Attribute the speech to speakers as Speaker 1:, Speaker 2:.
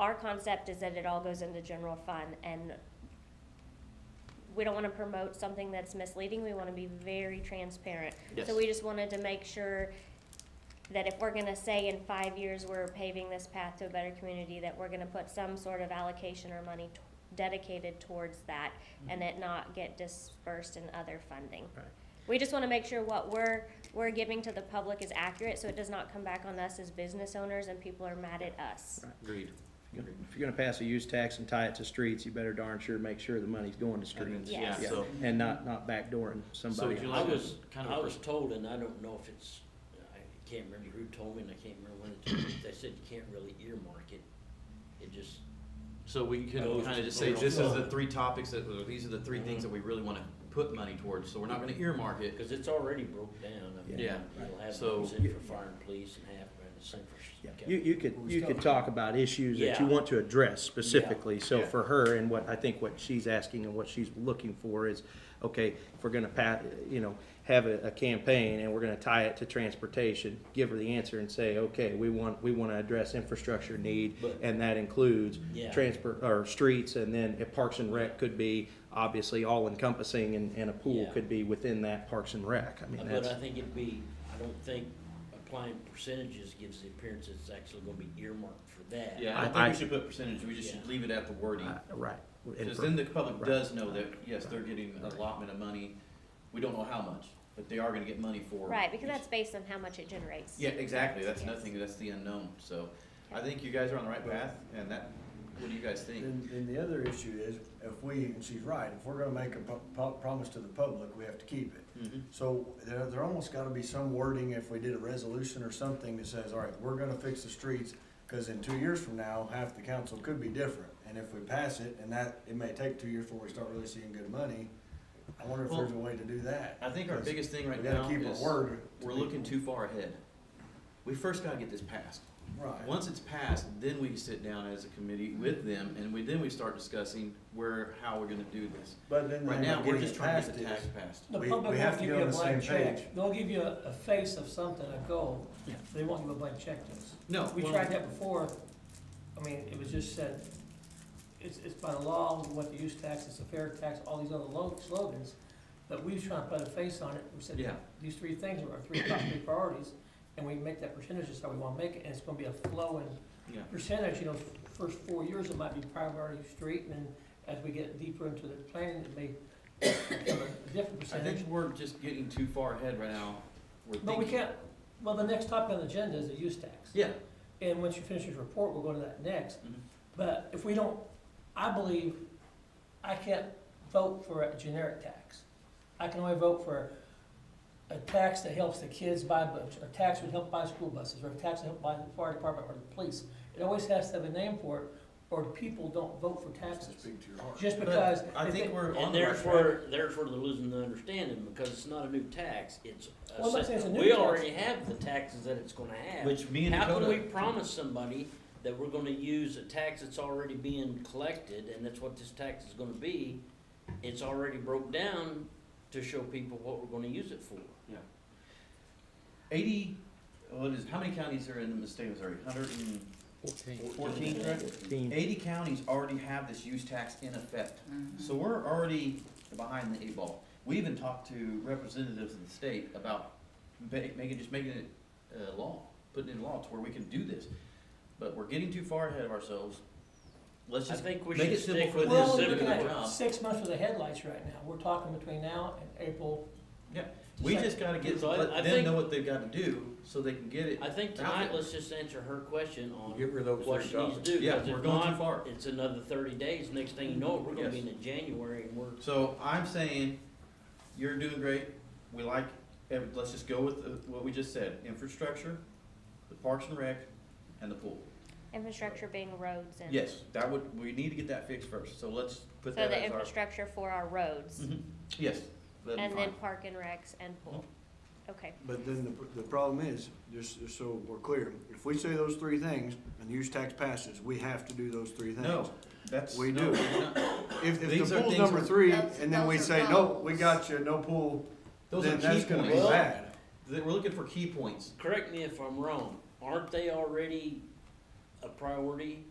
Speaker 1: Our concept is that it all goes into general fund and we don't wanna promote something that's misleading, we wanna be very transparent. So
Speaker 2: Yes.
Speaker 1: we just wanted to make sure that if we're gonna say in five years, we're paving this path to a better community, that we're gonna put some sort of allocation or money t- dedicated towards that and it not get dispersed in other funding.
Speaker 2: Mm-hmm. Right.
Speaker 1: We just wanna make sure what we're, we're giving to the public is accurate, so it does not come back on us as business owners and people are mad at us.
Speaker 2: Agreed.
Speaker 3: If you're gonna pass a use tax and tie it to streets, you better darn sure make sure the money's going to streets.
Speaker 2: Yeah,
Speaker 1: Yes.
Speaker 2: so,
Speaker 3: And not, not backdooring
Speaker 2: so
Speaker 3: somebody.
Speaker 2: would you
Speaker 4: I
Speaker 2: like
Speaker 4: was,
Speaker 2: us kind
Speaker 4: I
Speaker 2: of,
Speaker 4: was told, and I don't know if it's, I can't remember who told me, and I can't remember when it told me, but they said you can't really earmark it. It just,
Speaker 2: so we could
Speaker 4: Those
Speaker 2: kind of just say,
Speaker 4: little
Speaker 2: this is the
Speaker 4: flow.
Speaker 2: three topics that, or these are the three things that we really want to put money towards, so we're not going to earmark it.
Speaker 4: because it's already broke down. I mean,
Speaker 2: Yeah.
Speaker 4: You'll have
Speaker 2: So-
Speaker 4: those in for fire and police and half, and the same for. Uh,
Speaker 3: Yeah. You, you could, you could talk about issues that you
Speaker 4: Yeah.
Speaker 3: want to address specifically, so
Speaker 2: Yeah.
Speaker 3: for her, and what, I think what she's asking and what she's looking for is, okay, if we're gonna pa, you know, have a, a campaign and we're gonna tie it to transportation, give her the answer and say, okay, we want, we wanna address infrastructure need,
Speaker 4: But-
Speaker 3: and that includes
Speaker 4: Yeah.
Speaker 3: transport, or streets, and then if Parks and Rec could be obviously all encompassing, and, and a pool
Speaker 4: Yeah.
Speaker 3: could be within that Parks and Rec, I mean,
Speaker 4: But
Speaker 3: that's.
Speaker 4: I think it'd be, I don't think applying percentages gives the appearance it's actually gonna be earmarked for that.
Speaker 5: Yeah, I don't
Speaker 3: I-
Speaker 5: think we should put percentage, we just should
Speaker 4: Yeah.
Speaker 5: leave it at the wording.
Speaker 3: uh, Right. And
Speaker 5: Because
Speaker 3: for-
Speaker 5: then the public
Speaker 3: right.
Speaker 5: does know that, yes, they're getting an allotment of money. We don't know how much, but they are gonna get money for.
Speaker 1: Right, because
Speaker 5: each-
Speaker 1: that's based on how much it generates.
Speaker 5: Yeah, exactly. That's
Speaker 1: Yes.
Speaker 5: nothing, that's the unknown. So I think you guys are on the right path and that, what do you guys think?
Speaker 6: Then, then the other issue is, if we, and she's right, if we're gonna make a pu- pu- promise to the public, we have to keep it.
Speaker 5: Mhm.
Speaker 6: So there, there almost gotta be some wording, if we did a resolution or something that says, all right, we're gonna fix the streets, cause in two years from now, half the council could be different. And if we pass it, and that, it may take two years before we start really seeing good money, I wonder if
Speaker 5: Well,
Speaker 6: there's a way to do that.
Speaker 5: I think our
Speaker 6: 'Cause
Speaker 5: biggest thing right
Speaker 6: we gotta
Speaker 5: now
Speaker 6: keep our
Speaker 5: is
Speaker 6: word to
Speaker 5: we're looking
Speaker 6: people.
Speaker 5: too far ahead. We first gotta get this passed.
Speaker 6: Right. Mm-hmm.
Speaker 5: Once it's passed, then we sit down as a committee with them and we, then we start discussing where, how we're gonna do this.
Speaker 6: But then
Speaker 5: Right
Speaker 6: they end
Speaker 5: now,
Speaker 6: up
Speaker 5: we're
Speaker 6: getting
Speaker 5: just
Speaker 6: it
Speaker 5: trying to
Speaker 6: passed
Speaker 5: get the
Speaker 6: is-
Speaker 5: tax passed.
Speaker 7: The
Speaker 6: We-
Speaker 7: public
Speaker 6: we have
Speaker 7: won't
Speaker 6: to
Speaker 7: give
Speaker 6: be
Speaker 7: you a
Speaker 6: on the
Speaker 7: blank
Speaker 6: same
Speaker 7: check.
Speaker 6: page.
Speaker 7: They'll give you a, a face of something, a goal.
Speaker 5: Yeah.
Speaker 7: They won't give a blank check to us.
Speaker 5: No.
Speaker 7: We
Speaker 5: well-
Speaker 7: tried that before. I mean, it was just said, it's, it's by law, what the use tax, it's a fair tax, all these other lo- slogans. But we was trying to put a face on it. We said,
Speaker 5: Yeah.
Speaker 7: these three things are our three top three priorities. And we make that percentage, that's how we wanna make it, and it's gonna be a flowing
Speaker 5: Yeah.
Speaker 7: percentage, you know, first four years, it might be priority street, and then as we get deeper into the planning, it may become a different
Speaker 5: I
Speaker 7: percentage.
Speaker 5: think we're just getting too far ahead right now. We're
Speaker 7: But we
Speaker 5: thinking-
Speaker 7: can't, well, the next topic on the agenda is the use tax.
Speaker 5: Yeah,
Speaker 7: And once you finish this report, we'll go to that next.
Speaker 5: Mhm.
Speaker 7: But if we don't, I believe, I can't vote for a generic tax. I can only vote for a tax that helps the kids buy books, or a tax that would help buy school buses, or a tax that help buy the fire department or the police. It always has to have a name for it, or people don't vote for taxes.
Speaker 6: Speak to your heart.
Speaker 7: Just because.
Speaker 5: but I
Speaker 7: if
Speaker 5: think
Speaker 7: it-
Speaker 5: we're on
Speaker 4: And
Speaker 5: the right track.
Speaker 4: therefore, therefore they're losing the understanding, because it's not a new tax, it's. a
Speaker 7: Well, I'm not saying it's a
Speaker 4: set-
Speaker 7: new
Speaker 4: We
Speaker 7: tax.
Speaker 4: already have the taxes that it's gonna have.
Speaker 5: Which me and
Speaker 4: How can we
Speaker 5: Dakota,
Speaker 4: promise somebody that we're gonna use a tax that's already being collected, and that's what this tax is gonna be? It's already broke down to show people what we're gonna use it for.
Speaker 5: eighty, what is, how many counties are in the state of Missouri? Hundred and fourteen, correct?
Speaker 3: Dean.
Speaker 5: Eighty counties already have this use tax in effect. So we're already behind the eight ball. We even talked to representatives of the state about ma- making, just making it, uh, law, putting it in law to where we can do this. But we're getting too far ahead of ourselves. Let's
Speaker 4: I
Speaker 5: just make
Speaker 4: think we
Speaker 5: it
Speaker 4: should
Speaker 5: simple
Speaker 4: stick
Speaker 5: for
Speaker 4: with
Speaker 7: We're
Speaker 5: them,
Speaker 4: this
Speaker 7: only
Speaker 5: simple
Speaker 4: simple
Speaker 7: looking
Speaker 5: for
Speaker 7: at
Speaker 5: them.
Speaker 7: six months for the headlights right now. We're talking between now and April.
Speaker 5: Yeah, We just gotta get,
Speaker 4: So I- I
Speaker 5: let them
Speaker 4: think-
Speaker 5: know what they've gotta do, so they can get it.
Speaker 4: I think
Speaker 5: out
Speaker 4: tonight,
Speaker 5: there.
Speaker 4: let's just answer her question on
Speaker 8: Get rid of those
Speaker 4: what
Speaker 8: three
Speaker 4: she needs to do.
Speaker 5: Yeah,
Speaker 4: 'cause
Speaker 5: we're
Speaker 4: if
Speaker 5: going too
Speaker 4: not,
Speaker 5: far.
Speaker 4: It's another thirty days, next thing you know, we're gonna be
Speaker 5: Yes.
Speaker 4: in January, and we're
Speaker 5: So I'm saying, you're doing great, we like, ev- let's just go with uh, what we just said, infrastructure, the parks and rec, and the pool.
Speaker 1: Infrastructure being roads and.
Speaker 5: Yes, that would, we need to get that fixed first, so let's put
Speaker 1: So
Speaker 5: that
Speaker 1: the
Speaker 5: as our.
Speaker 1: infrastructure for our roads,
Speaker 5: Mhm. Yes, that'd
Speaker 1: and then
Speaker 5: be fine. Mm-hmm.
Speaker 1: park and recs and pool. Okay,
Speaker 6: But then the, the problem is, just just so we're clear, if we say those three things and the use tax passes, we have to do those three things.
Speaker 5: No, that's.
Speaker 6: We
Speaker 5: no,
Speaker 6: do.
Speaker 5: we're not-
Speaker 6: If, if
Speaker 5: These
Speaker 6: the
Speaker 5: are
Speaker 6: pool's
Speaker 5: things
Speaker 6: number
Speaker 5: we're-
Speaker 6: three,
Speaker 9: Those-
Speaker 6: and then we
Speaker 9: those are
Speaker 6: say, no,
Speaker 9: goals.
Speaker 6: we got you, no pool,
Speaker 5: Those are
Speaker 6: then
Speaker 5: key
Speaker 6: that's gonna be
Speaker 5: points,
Speaker 6: bad.
Speaker 5: That- we're looking for key points.
Speaker 4: correct me if I'm wrong, aren't they already a priority